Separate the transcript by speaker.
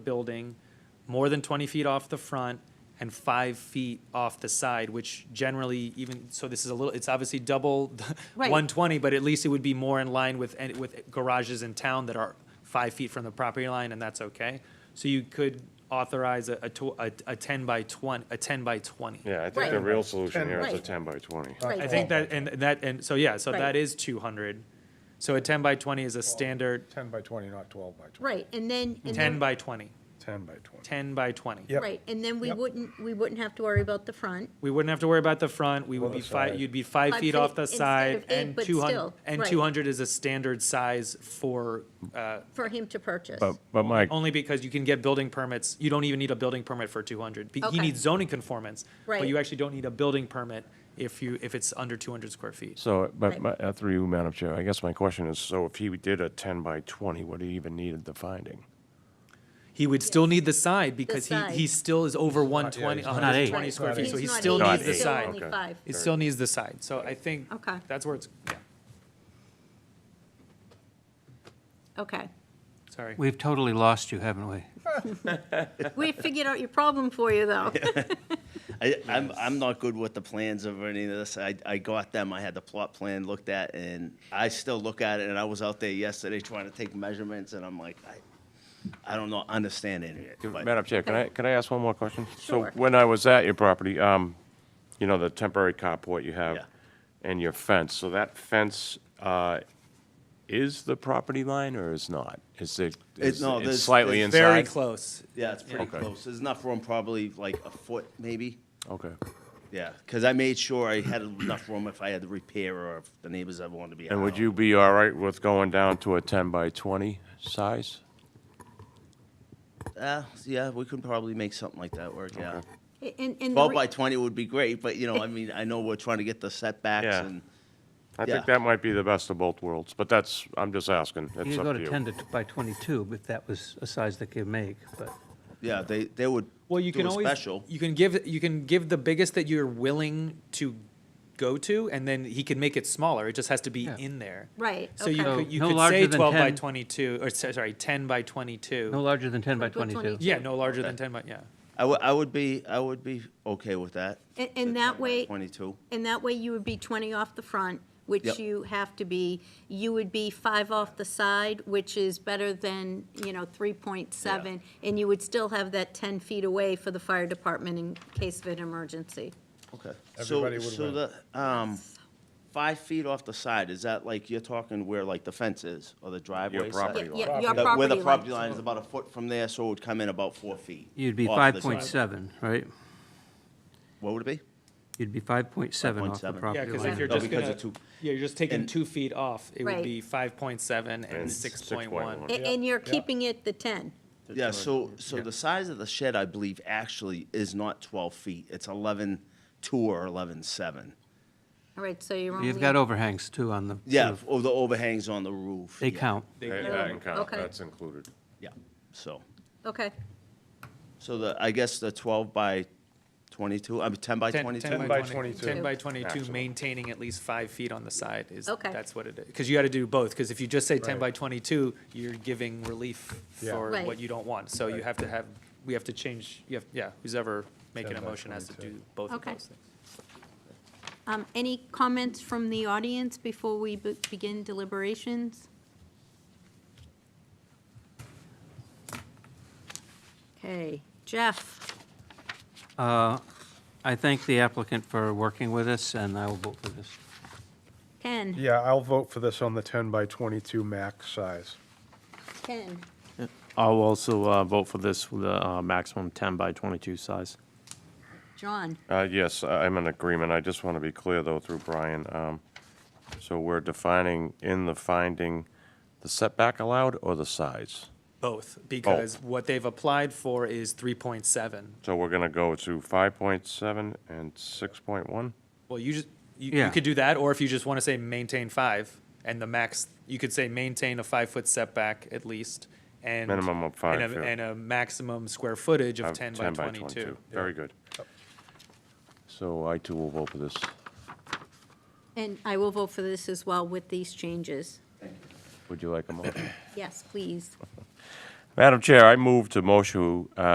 Speaker 1: building, more than 20 feet off the front and five feet off the side, which generally even, so this is a little, it's obviously double the
Speaker 2: Right.
Speaker 1: 120, but at least it would be more in line with, any- with garages in town that are five feet from the property line, and that's okay. So you could authorize a, a tw- a a 10 by 20, a 10 by 20.
Speaker 3: Yeah, I think the
Speaker 2: Right.
Speaker 3: real solution here is a
Speaker 2: Right.
Speaker 3: ten by twenty.
Speaker 1: I think that, and that, and so, yeah, so
Speaker 2: Right.
Speaker 1: that is 200. So a 10 by 20 is a standard
Speaker 4: 10 by 20, not 12 by 20.
Speaker 2: Right, and then. and
Speaker 1: 10
Speaker 2: then-
Speaker 1: by 20,
Speaker 4: 10 by 20.
Speaker 1: 10 by 20.
Speaker 4: Yep.
Speaker 2: Right, and then we
Speaker 4: Yep.
Speaker 2: wouldn't, we wouldn't have to worry about the front.
Speaker 1: We wouldn't have to worry about the front, we would
Speaker 4: Or the
Speaker 1: be five,
Speaker 4: side.
Speaker 1: you'd be five
Speaker 2: Five
Speaker 1: feet
Speaker 2: feet
Speaker 1: off the
Speaker 2: instead
Speaker 1: side
Speaker 2: of eight,
Speaker 1: and
Speaker 2: but
Speaker 1: two hundred,
Speaker 2: still,
Speaker 1: and
Speaker 2: right.
Speaker 1: two hundred is a standard size for, uh,
Speaker 2: for him to purchase.
Speaker 3: But, but Mike,
Speaker 1: only because you can get building permits, you don't even need a building permit for two hundred. He
Speaker 2: Okay.
Speaker 1: needs zoning conformance, but you
Speaker 2: Right.
Speaker 1: actually don't need a building permit if you, if it's under two hundred square feet.
Speaker 3: so, but,
Speaker 2: Right.
Speaker 3: my- uh, through you, Madam Chair, I guess my question is, so if he did a ten by twenty, would he even needed the finding?
Speaker 1: He would still need the side because he,
Speaker 2: side.
Speaker 1: he still is over one twenty,
Speaker 4: he's
Speaker 1: one
Speaker 4: not-
Speaker 1: hundred and
Speaker 2: Right,
Speaker 1: twenty square
Speaker 4: Not
Speaker 1: feet,
Speaker 4: eight.
Speaker 1: so he
Speaker 2: He's not
Speaker 1: still
Speaker 2: eight,
Speaker 1: needs the
Speaker 2: he's still
Speaker 1: side.
Speaker 2: only
Speaker 3: Okay.
Speaker 2: five.
Speaker 1: He still needs the side, so I think
Speaker 2: Okay.
Speaker 1: that's where it's, yeah,
Speaker 2: Okay,
Speaker 1: sorry.
Speaker 5: We've totally lost you, haven't we?
Speaker 2: we figured out your problem for you, though.
Speaker 6: I, I'm, I'm not good with the plans of any of this. I, I got them, I had the plot plan looked at, and I still look at it, and I was out there yesterday trying to take measurements, and I'm like, I, I don't know, understand any of it. but-
Speaker 3: Madam Chair, can I, can I ask one more question?
Speaker 2: Sure.
Speaker 3: So when I was at your property, um, you know, the temporary carport you have
Speaker 6: Yeah.
Speaker 3: and your fence, so that fence, uh, is the property line or is not? Is it, is it
Speaker 6: no, there's-
Speaker 3: slightly
Speaker 6: there's
Speaker 3: inside?
Speaker 1: Very close.
Speaker 6: Yeah, it's pretty
Speaker 3: Okay.
Speaker 6: close. There's enough room, probably like a foot, maybe.
Speaker 3: Okay.
Speaker 6: Yeah, because I made sure I had enough room if I had to repair or if the neighbors ever wanted to be.
Speaker 3: And would
Speaker 6: out.
Speaker 3: you be all right with going down to a ten by twenty size?
Speaker 6: Uh, yeah, we could probably make something like that work, yeah.
Speaker 2: And, and. the
Speaker 6: Twelve
Speaker 2: re-
Speaker 6: by twenty would be great, but you know, I mean, I know we're trying to get the setbacks
Speaker 3: Yeah.
Speaker 6: and,
Speaker 3: I think
Speaker 6: Yeah.
Speaker 3: that might be the best of both worlds, but that's, I'm just asking.
Speaker 5: You
Speaker 3: It's
Speaker 5: could
Speaker 3: up
Speaker 5: go
Speaker 3: to
Speaker 5: to
Speaker 3: you.
Speaker 5: 10 to t- by 22, if that was a size they could make, but
Speaker 6: yeah, they, they would
Speaker 1: Well, you
Speaker 6: do
Speaker 1: can
Speaker 6: a
Speaker 1: always
Speaker 6: special.
Speaker 1: you can give you can give the biggest that you're willing to go to, and then he can make it smaller. It just has to be
Speaker 5: Yeah.
Speaker 1: in there.
Speaker 2: Right,
Speaker 1: So you
Speaker 5: So
Speaker 2: okay.
Speaker 1: could you
Speaker 5: no
Speaker 1: could
Speaker 5: larger
Speaker 1: say
Speaker 5: than
Speaker 1: twelve by
Speaker 5: 10.
Speaker 1: twenty-two, or so- sorry, ten by twenty-two.
Speaker 5: no larger than 10 by
Speaker 2: Like what,
Speaker 5: 22.
Speaker 2: 22?
Speaker 1: yeah, no larger than ten by yeah.
Speaker 6: I would, I would be, I would be okay with that.
Speaker 2: And, and that way,
Speaker 6: Twenty-two.
Speaker 2: and that way you would be twenty off the front, which
Speaker 6: Yep.
Speaker 2: you have to be. You would be five off the side, which is better than, you know, three point seven. And you would still have that ten feet away for the fire department in case of an emergency.
Speaker 6: Okay.
Speaker 4: Everybody
Speaker 6: So,
Speaker 4: would
Speaker 6: so
Speaker 4: win.
Speaker 6: the, um, five feet off the side, is that like, you're talking where like the fence is or the driveway? side?
Speaker 3: property
Speaker 2: Yeah,
Speaker 3: line.
Speaker 2: yeah, your
Speaker 6: The- Where the
Speaker 2: property
Speaker 6: property
Speaker 2: line.
Speaker 6: line is about a foot from there, so it would come in about four feet.
Speaker 5: You'd be
Speaker 6: off the side.
Speaker 5: 5.7, right?
Speaker 6: What would it be?
Speaker 5: You'd be 5.7 off the
Speaker 6: 5.7. Yeah,
Speaker 1: Yeah,
Speaker 5: property
Speaker 1: because if
Speaker 5: line.
Speaker 1: you're
Speaker 6: No,
Speaker 1: just
Speaker 6: because
Speaker 1: gonna,
Speaker 6: of two-
Speaker 1: yeah, you're just taking
Speaker 6: and-
Speaker 1: two feet off. It would
Speaker 2: Right.
Speaker 1: be five point seven and
Speaker 3: And
Speaker 1: six point one.
Speaker 3: 6.1.
Speaker 2: A- And you're keeping it the ten.
Speaker 6: Yeah, so, so the size of the shed, I believe, actually is not twelve feet. It's eleven-two or eleven-seven.
Speaker 2: All right, so you're only.
Speaker 5: You've got overhangs too on the
Speaker 6: Yeah,
Speaker 5: roof.
Speaker 6: or the overhangs on the roof.
Speaker 5: They
Speaker 6: yeah,
Speaker 5: count.
Speaker 3: Hey,
Speaker 2: Yeah.
Speaker 3: that can count.
Speaker 2: Okay.
Speaker 3: That's included.
Speaker 6: Yeah, so,
Speaker 2: Okay,
Speaker 6: so the, I guess the twelve by twenty-two, I mean, ten by
Speaker 1: 10,
Speaker 6: twenty-two?
Speaker 1: 10
Speaker 4: by
Speaker 1: by 22.
Speaker 4: 22.
Speaker 1: 10 by 22,
Speaker 3: Actual.
Speaker 1: maintaining at least five feet on the side is,
Speaker 2: Okay.
Speaker 1: that's what it is. Because you got to do both, because if you just say 10
Speaker 4: Right.
Speaker 1: by 22, you're giving relief
Speaker 4: Yeah.
Speaker 1: for
Speaker 2: Right.
Speaker 1: what you don't want. So you have to have, we have to change, you have, yeah, who's ever making
Speaker 4: 10
Speaker 1: a
Speaker 4: by
Speaker 1: motion has to
Speaker 4: 22.
Speaker 1: do both of
Speaker 2: Okay.
Speaker 1: those things.
Speaker 2: um, any comments from the audience before we be- begin deliberations? Okay, Jeff,
Speaker 5: Uh, I thank the applicant for working with us, and I will vote for this.
Speaker 2: Ken,
Speaker 4: Yeah, I'll vote for this on the 10 by 22 max size.
Speaker 2: Ken,
Speaker 7: I'll also uh, vote for this with a uh, maximum 10 by 22 size.
Speaker 2: John,
Speaker 3: Uh, yes, I- I'm in agreement. I just want to be clear though through Brian. Um, so we're defining in the finding the setback allowed or the size?
Speaker 1: Both,
Speaker 6: Oh.
Speaker 1: because what they've applied for is 3.7.
Speaker 3: So we're going to go to five point seven and six point one?
Speaker 1: Well, you just, you- you
Speaker 5: Yeah.
Speaker 1: could do that, or if you just want to say maintain five, and the max, you could say maintain a five-foot setback at least, and.
Speaker 3: Minimum of five,
Speaker 1: and a-
Speaker 3: yeah.
Speaker 1: And a maximum square footage of 10 by 22.
Speaker 3: Very good. So I too will vote for this.
Speaker 2: and I will vote for this as well with these changes.
Speaker 3: Would you like a motion?
Speaker 2: Yes, please.
Speaker 3: Madam Chair, I move to motion, uh,